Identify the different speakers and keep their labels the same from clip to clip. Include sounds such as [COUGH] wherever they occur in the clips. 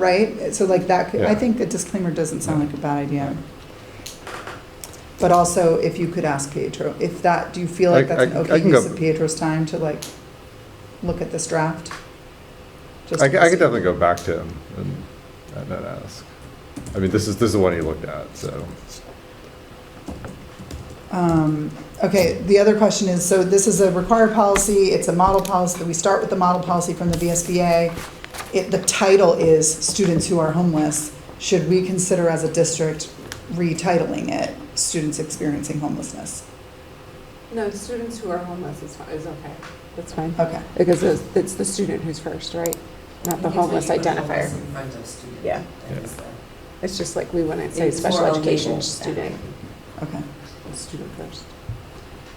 Speaker 1: right? So like that, could- I
Speaker 2: Yeah.
Speaker 1: think a disclaimer doesn't sound like a bad idea. But also, if you could ask Pietro, if that, do you feel like
Speaker 2: I-
Speaker 1: that's an
Speaker 2: I- I
Speaker 1: okay
Speaker 2: can go-
Speaker 1: use of Pietro's time to like look at this draft? Just
Speaker 2: I, c- I
Speaker 1: to
Speaker 2: could
Speaker 1: see.
Speaker 2: definitely go back to him and, and then ask. I mean, this is, this is the one he looked at, so.
Speaker 1: Um, Okay, the other question is, so this is a required policy, it's a model policy, we start with the model policy from the VSBA. It, the title is students who are homeless, should we consider as a district retitling it, students experiencing homelessness?
Speaker 3: No, students who are homeless is, fi- is okay. That's fine.
Speaker 1: Okay,
Speaker 3: Because it's, it's the student who's first, right? Not the homeless identifier.
Speaker 4: In front of student.
Speaker 3: Yeah.
Speaker 4: That is, uh,
Speaker 3: It's just like we wouldn't say
Speaker 4: it's
Speaker 3: special
Speaker 4: for all
Speaker 3: education
Speaker 4: people.
Speaker 3: student,
Speaker 1: okay,
Speaker 3: it's student first.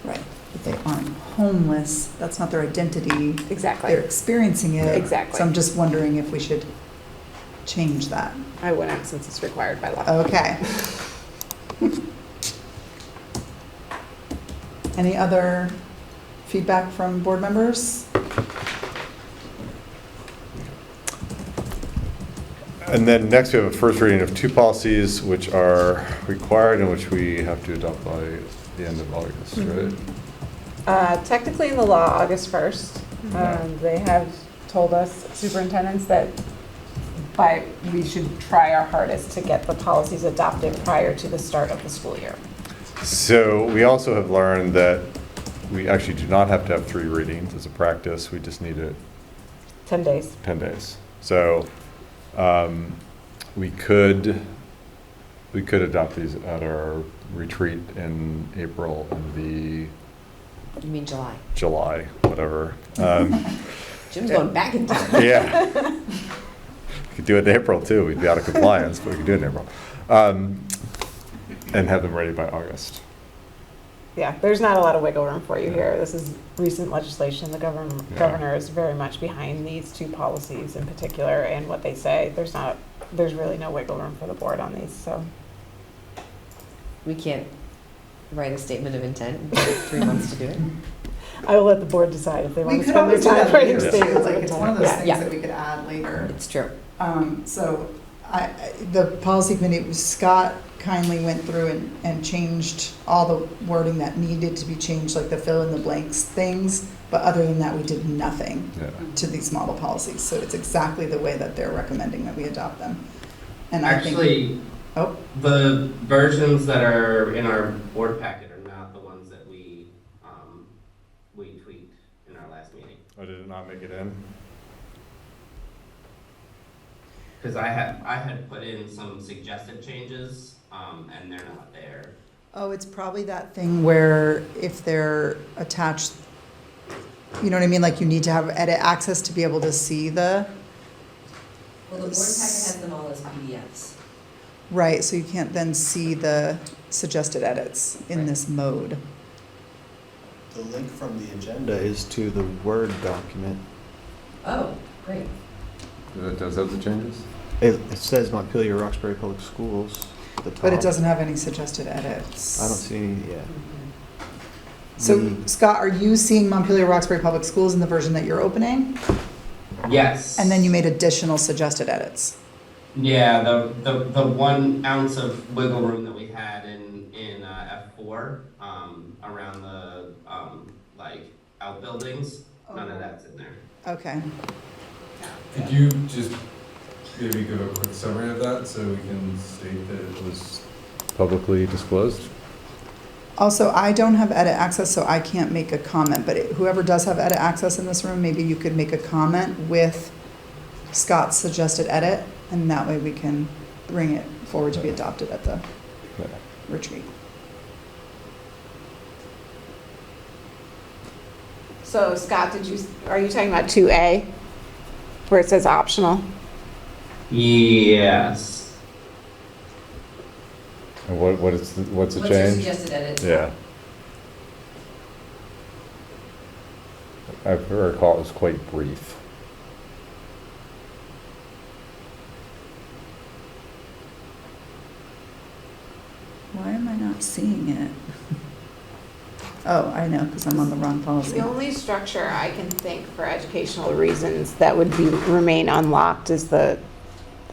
Speaker 1: right. If they aren't homeless, that's not their identity, they're
Speaker 3: Exactly.
Speaker 1: experiencing it. So I'm
Speaker 3: Exactly.
Speaker 1: just wondering if we should change that.
Speaker 3: I wouldn't since it's required by law.
Speaker 1: Okay. [LAUGHS] Any other feedback from board members?
Speaker 2: And then next, we have a first reading of two policies which are required and which we have to adopt by the end of August, right?
Speaker 3: Uh, technically in the law, August 1st,
Speaker 2: Mhm.
Speaker 3: um, they have told us superintendents that by, we should try our hardest to get the policies adopted prior to the start of the school year.
Speaker 2: So we also have learned that we actually do not have to have three readings as a practice. We just need it
Speaker 3: 10 days.
Speaker 2: 10 days. So um, we could, we could adopt these at our retreat in April and the
Speaker 4: You mean July?
Speaker 2: July, whatever. Um,
Speaker 4: Jim's going back in time.
Speaker 2: Yeah. We could do it in April, too. We'd be out of compliance, but we could do it in April. Um, And have them ready by August.
Speaker 3: Yeah, there's not a lot of wiggle room for you here. This is recent legislation. The govern-
Speaker 2: Yeah.
Speaker 3: governor is very much behind these two policies in particular and what they say. There's not, there's really no wiggle room for the board on these, so.
Speaker 4: [LAUGHS] We can't write a statement of intent and take three months to do it.
Speaker 3: I will let the board decide if they
Speaker 1: We
Speaker 3: want to
Speaker 1: could
Speaker 3: spend their
Speaker 1: always do
Speaker 3: time
Speaker 1: that
Speaker 3: writing
Speaker 1: later, too.
Speaker 3: statements.
Speaker 1: like, it's one of those
Speaker 3: Yeah,
Speaker 1: things
Speaker 4: yeah.
Speaker 1: that we could add later.
Speaker 4: [LAUGHS] It's true.
Speaker 1: Um, So I, I- the policy committee, Scott kindly went through and, and changed all the wording that needed to be changed, like the fill in the blanks things, but other than that, we did nothing
Speaker 2: Yeah.
Speaker 1: to these model policies, so it's exactly the way that they're recommending that we adopt them. And I think.
Speaker 5: Actually,
Speaker 1: Oh.
Speaker 5: the versions that are in our board packet are not the ones that we, um, we tweaked in our last meeting.
Speaker 2: Oh, did it not make it in?
Speaker 5: Because I had, I had put in some suggested changes, um, and they're not there.
Speaker 1: Oh, it's probably that thing where if they're attached, you know what I mean? Like you need to have edit access to be able to see the,
Speaker 6: Well, the board packet has them all as PDFs.
Speaker 1: right, so you can't then see the suggested edits in this mode.
Speaker 7: The link from the agenda is to the Word document.
Speaker 6: Oh, great.
Speaker 2: Does that have the changes?
Speaker 7: It, it says Montpelier Roxbury Public Schools at the top.
Speaker 1: But it doesn't have any suggested edits.
Speaker 7: I don't see any, yeah.
Speaker 1: So
Speaker 7: The-
Speaker 1: Scott, are you seeing Montpelier Roxbury Public Schools in the version that you're opening?
Speaker 5: Yes.
Speaker 1: And then you made additional suggested edits?
Speaker 5: Yeah, the, the, the one ounce of wiggle room that we had in, in, uh, F four, um, around the, um, like, outbuildings, none of that's in there.
Speaker 1: Okay,
Speaker 8: Could you just maybe give a quick summary of that so we can state that it was?
Speaker 2: Publicly disclosed?
Speaker 1: Also, I don't have edit access, so I can't make a comment, but whoever does have edit access in this room, maybe you could make a comment with Scott's suggested edit, and that way we can bring it forward to be adopted at the
Speaker 2: Yeah.
Speaker 1: retreat.
Speaker 3: So Scott, did you, are you talking about 2A? Where it says optional?
Speaker 5: Yes.
Speaker 2: And what, what is, the- what's the
Speaker 6: What's your
Speaker 2: change?
Speaker 6: suggested edit?
Speaker 2: Yeah. I recall it was quite brief.
Speaker 1: Why am I not seeing it? Oh, I know, because I'm on the wrong policy.
Speaker 3: The only structure I can think for educational reasons that would be, remain unlocked is the